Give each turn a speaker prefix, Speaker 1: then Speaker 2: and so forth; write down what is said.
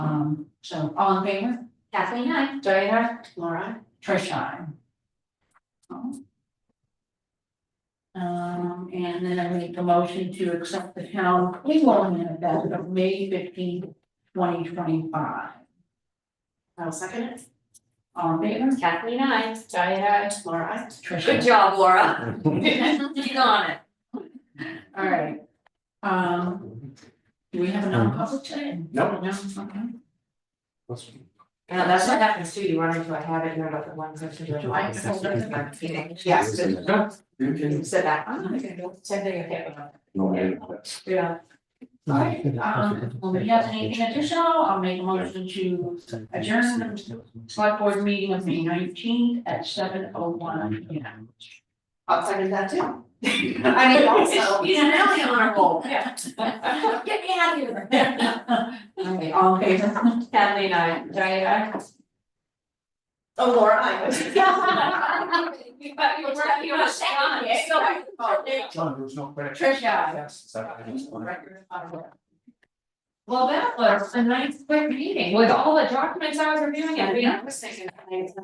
Speaker 1: Um, so all in favor?
Speaker 2: Kathleen, I,
Speaker 1: Diana, Laura, Trish, I. Um, and then I make a motion to accept the town payroll minute of May 15, 2025. I'll second it. All in favor?
Speaker 2: Kathleen, I.
Speaker 1: Diana, Laura, Trish.
Speaker 2: Good job, Laura. You got it.
Speaker 1: All right. Um, do we have a non-public today?
Speaker 3: No.
Speaker 1: No, okay.
Speaker 4: Yeah, that's what happens too, you run into a habit, you're not the one who's doing it.
Speaker 1: Do I hold it?
Speaker 4: Yes, but
Speaker 3: You
Speaker 4: you
Speaker 3: can.
Speaker 4: said that, I'm not gonna do it, same thing with him,
Speaker 3: No, I didn't.
Speaker 4: yeah.
Speaker 1: All right, um, well, if you have anything additional, I'll make a motion to adjourn the select board meeting of May nineteenth at seven oh one P M.
Speaker 4: I'll second that too. I mean, also.
Speaker 1: You know, now you're on a roll.
Speaker 4: Yeah.
Speaker 2: Get me out of here.
Speaker 1: Okay, all in favor?
Speaker 4: Kathleen, I, Diana. Oh, Laura, I.
Speaker 2: You were- you were second, yeah.
Speaker 4: eh?
Speaker 3: John, there's no credit.
Speaker 1: Tricia.
Speaker 3: Yes, is that-
Speaker 2: Well, that was a nice quick meeting with all the documents I was reviewing and reading.
Speaker 4: I was thinking, I was